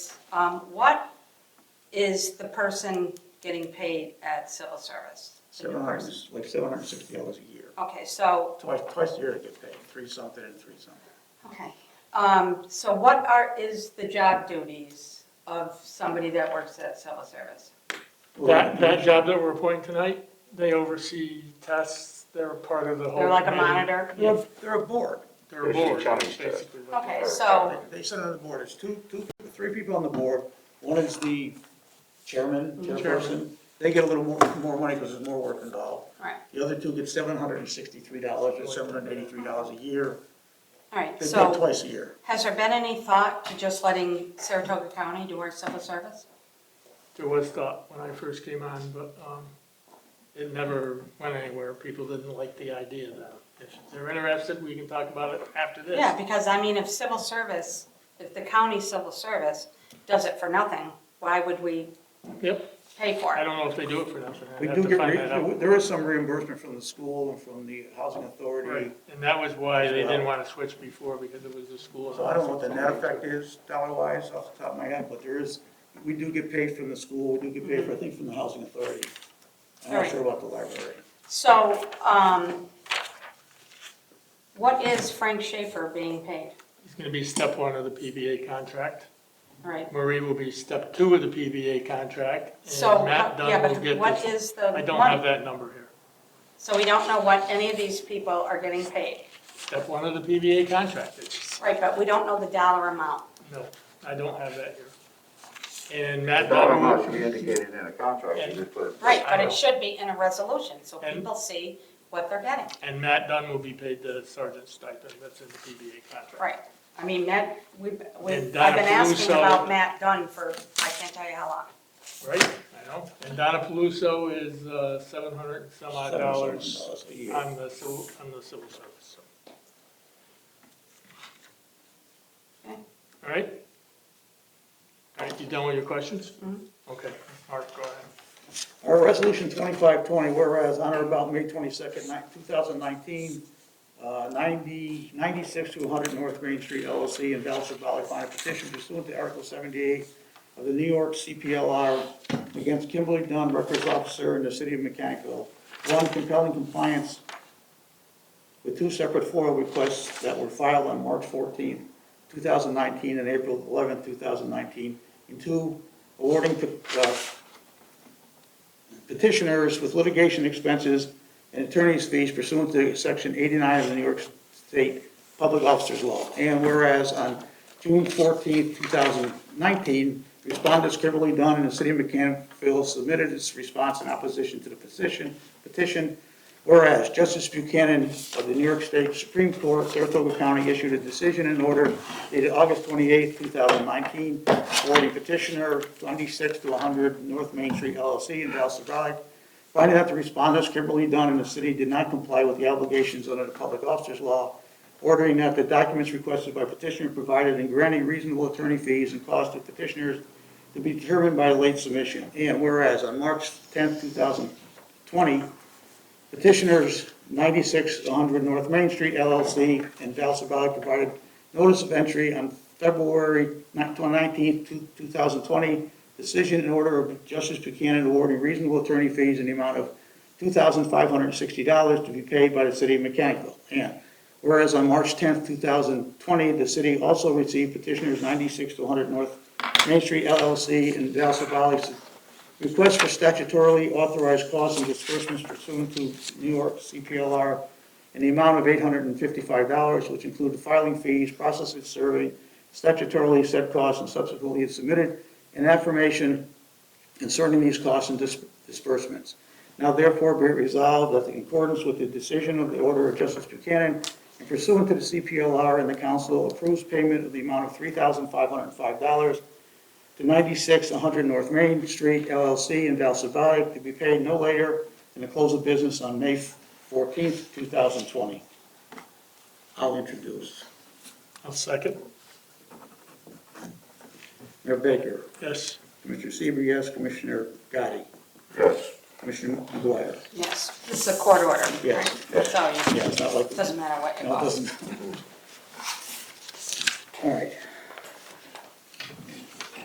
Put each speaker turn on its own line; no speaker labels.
Um, What is the person getting paid at civil service? The new
Seven
person?
hundred, like seven hundred and sixty dollars a year.
Okay, so,
Twice, twice a year to get paid, three something and three something.
okay. Um, So what are, is the job duties of somebody that works at civil service?
That, that job that we're appointing tonight, they oversee tests, they're part of the whole.
They're like a
committee.
monitor?
They're, they're a board.
They're a
They're
board,
counting staff.
basically. what they
Okay,
are.
so,
They- They sit on the board, there's two, two, three people on the board. One is the chairman, chairperson. They get a little more, more money because there's more work involved.
all right,
The other two get seven hundred and sixty-three dollars or seven hundred and eighty-three dollars a year.
all right.
They pay
So
twice a year.
has there been any thought to just letting Saratoga County do our civil service?
There was thought when I first came on, but, um, it never went anywhere. People didn't like the idea that if they're interested, we can talk about it after this.
Yeah, because I mean, if civil service, if the county civil service does it for nothing, why would we
Yep,
pay for
I
it?
don't know if they do it for nothing.
We
I'd
do
have to
get,
find that
re-
out.
there is some reimbursement from the school and from the housing authority.
Right, and that was why they didn't wanna switch before, because it was the school.
So I don't know what the net effect is dollar-wise off the top of my head, but there is, we do get paid from the school, we do get paid for, I think, from the housing authority. I'm not
Alright.
sure about the library.
So, um, what is Frank Schaefer being paid?
It's gonna be step one of the PBA contract.
Right,
Marie will be step two of the PBA contract. and
so,
Matt
how-
Dunn
yeah,
will
but
get
what
this-
is the
I don't have
money?
that number here.
So we don't know what any of these people are getting paid,
Step one of the PBA contract, it's,
right, but we don't know the dollar amount.
no, I don't have that here. And Matt
Dollar
Dunn
amount
will,
should be indicated in a contract, you just put.
Right, but
I know.
it should be in a resolution, so
And-
people see what they're getting,
and Matt Dunn will be paid the sergeant stipend that's in the PBA contract.
right? I mean, Matt, we've, we've,
And
I've
Donna
been asking
Peluso-
about Matt Dunn for, I can't tell you how long.
Right, I know. And Donna Paluso is, uh, seven hundred and some odd
Seven
dollars
dollars a year.
on the civil, on the civil service, so.
Okay.
All right? All right, you done with your questions?
Mhm.
Okay, Mark, go ahead.
Our resolution twenty-five twenty, whereas on or about May twenty-second, two thousand nineteen, uh, ninety, ninety-six to hundred North Green Street LLC and Dallas Valley filed a petition pursuant to Article seventy-eight of the New York CPLR against Kimberly Dunn, records officer in the city of Mechanicville. One compelling compliance with two separate FOIL requests that were filed on March 14, 2019, and April 11, 2019, and two, awarding uh, petitioners with litigation expenses and attorney's fees pursuant to Section 89 of the New York State Public Officers Law. And whereas on June 14, 2019, respondents Kimberly Dunn and the City of Mechanicsville submitted its response in opposition to the petition, petition Whereas Justice Buchanan of the New York State Supreme Court, Saratoga County, issued a decision and order dated August 28, 2019, awarding petitioner 96 to 100 North Main Street LLC in Dallas Valley, finding that the respondents Kimberly Dunn and the city did not comply with the obligations under the public officers law, ordering that the documents requested by petitioner provided and granting reasonable attorney fees and costs to petitioners to be determined by late submission. And whereas on March 10, 2020, Petitioners 96 100 North Main Street LLC and Dallas Valley provided notice of entry on February 19, 2020. Decision in order of Justice Buchanan awarding reasonable attorney fees in the amount of $2,560 to be paid by the city of Mechanical. And whereas on March 10, 2020, the city also received petitioners 96 100 North Main Street LLC and Dallas Valley Request for statutorily authorized costs and disbursements pursuant to New York CPLR in the amount of $855, which include filing fees, processing survey, statutorily set costs, and subsequently submitted an affirmation concerning these costs and dis- disbursements. Now therefore be it resolved that in accordance with the decision of the Order of Justice Buchanan and pursuant to the CPLR and the council approves payment of the amount of $3,505 to 96 100 North Main Street LLC in Val Savada to be paid no later than the close of business on May 14th, 2020. I'll introduce.
I'll second.
Mayor Baker,
Yes,
Commissioner Seber, yes, Commissioner Gotti,
Yes,
Commissioner McGuire.
Yes, this is a court order.
Yes.
right? So,
Yeah, it's not like,
it doesn't matter what
no, it
involves.
doesn't. All right.